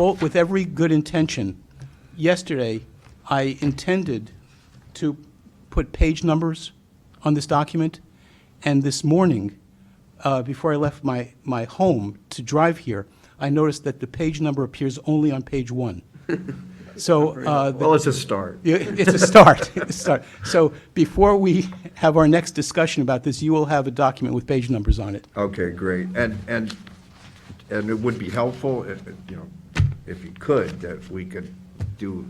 all- with every good intention. Yesterday, I intended to put page numbers on this document, and this morning, uh, before I left my, my home to drive here, I noticed that the page number appears only on page one. So uh, the Well, it's a start. yeah, It's a start, it's a start. So before we have our next discussion about this, you will have a document with page numbers on it. Okay, great. And, and, and it would be helpful, if, if, you know, if you could, that we could do,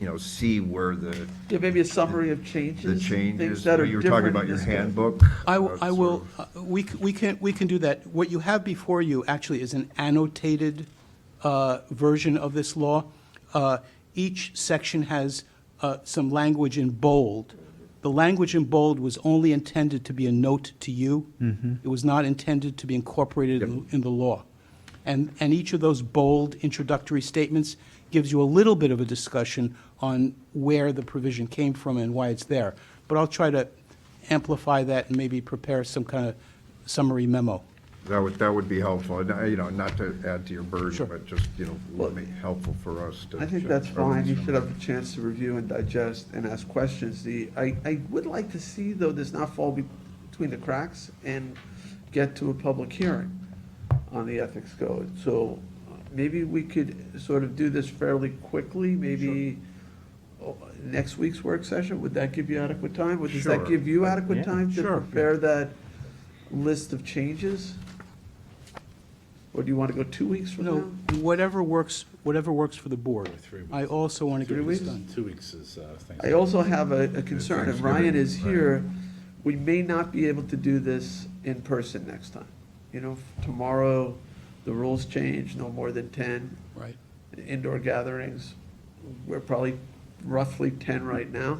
you know, see where the, Yeah, maybe a summary of changes. the and changes, Things that are you were talking different about in your this guy. handbook. I, uh, w- I sort will, of- uh, we, c- we can, we can do that. What you have before you actually is an annotated uh, version of this law. Uh, Each section has uh, some language in bold. The language in bold was only intended to be a note to you. It was not intended to be incorporated in in the law. And, and each of those bold introductory statements gives you a little bit of a discussion on where the provision came from and why it's there. But I'll try to amplify that and maybe prepare some kind of summary memo. That would, that would be helpful, And, uh, you know, not to add to your burden, but just, you know, Well, would be helpful for us to. I think check that's over fine. You some- should have a chance to review and digest and ask questions. The, I, I would like to see, though, this not fall be- between the cracks and get to a public hearing on the ethics code. So uh, maybe we could sort of do this fairly quickly, maybe oh, next week's work session? Would that give you adequate time? Would- Does that Sure. give you adequate time to Sure. prepare that list of changes? Or do you want to go two weeks You from know, now? whatever works, whatever works for the board. Three weeks. I also want to Three get this weeks? done. Two weeks is uh, I Thanksgiving. also have a, a concern, if Ryan is Thanksgiving, here, we may not be able to do this in person next time. You know, tomorrow, the rules change, no more than ten Right. indoor gatherings. We're probably roughly ten right now,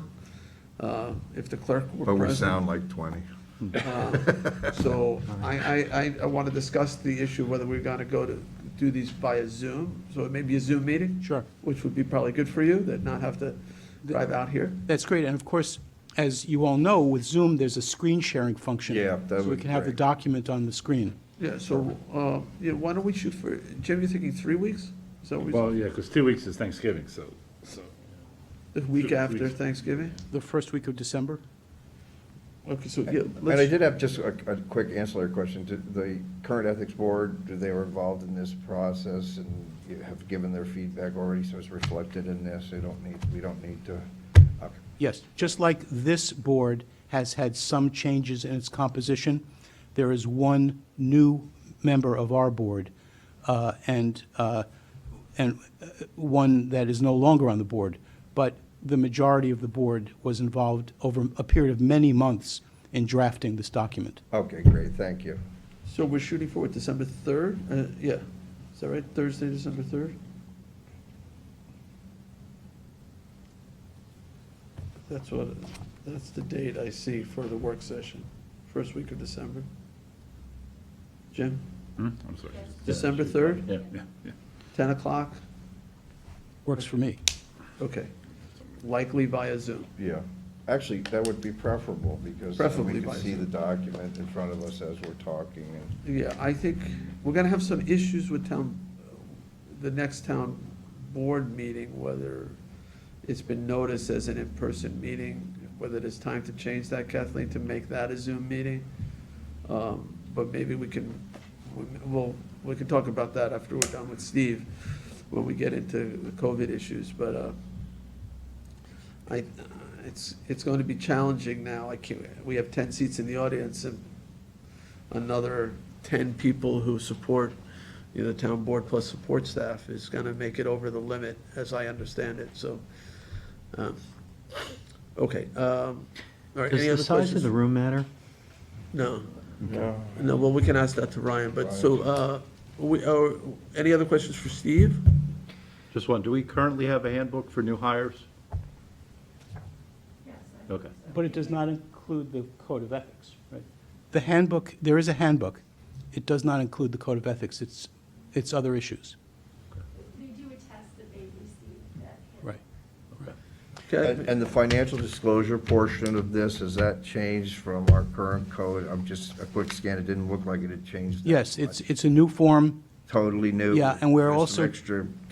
uh, if the clerk were But present. we sound like twenty. Uh, So I, I, I, I want to discuss the issue whether we're gonna go to, do these via Zoom, so it may be a Zoom meeting. Sure. Which would be probably good for you, that not have to drive out here. That's great. And of course, as you all know, with Zoom, there's a screen sharing function. Yeah, that So we would can be have the great. document on the screen. Yeah, so, uh, yeah, why don't we shoot for, Jim, you're thinking three weeks? So Well, yeah, because two weeks is Thanksgiving, so, so, the week two after weeks. Thanksgiving? The first week of December? Okay, so, yeah, And I let's, did have just a, a quick ancillary question. Did the current ethics board, do they were involved in this process and you have given their feedback already, so it's reflected in this? They don't need, we don't need to, okay. Yes, just like this board has had some changes in its composition, there is one new member of our board, uh, and, uh, and uh, one that is no longer on the board, but the majority of the board was involved over a period of many months in drafting this document. Okay, great, thank you. so we're shooting for what, December third? Uh, yeah, is that right? Thursday, December third? That's what, that's the date I see for the work session, first week of December. Jim, Hmm? I'm sorry. December third, Yeah, yeah, yeah. ten o'clock? Works for me. Okay, likely via Zoom. Yeah, actually, that would be preferable because then Preferably we by can see Zoom. the document in front of us as we're talking and. Yeah, I think we're gonna have some issues with town, the next town board meeting, whether it's been noticed as an in-person meeting, whether it is time to change that, Kathleen, to make that a Zoom meeting. Um, But maybe we can, well, we can talk about that after we're done with Steve, when we get into the COVID issues, but, uh, I, it's, it's going to be challenging now. I can't, we have ten seats in the audience and another ten people who support, you know, the town board plus support staff is gonna make it over the limit, as I understand it, so. um, Okay, um, all right, Does any the other size of questions? the room matter? No, no, well, we can ask that to Ryan, but so, uh, we, or, any other questions for Steve? Just one, do we currently have a handbook for new hires? Okay. But it does not include the code of ethics, right? The handbook, there is a handbook. It does not include the code of ethics. It's, it's other issues. They do attest that they received that. Right. Okay, And and the financial disclosure portion of this, has that changed from our current code? I'm just, a quick scan, it didn't look like it had changed. that Yes, much. it's, it's a new form. Totally new. Yeah, and we're There's some also- Extra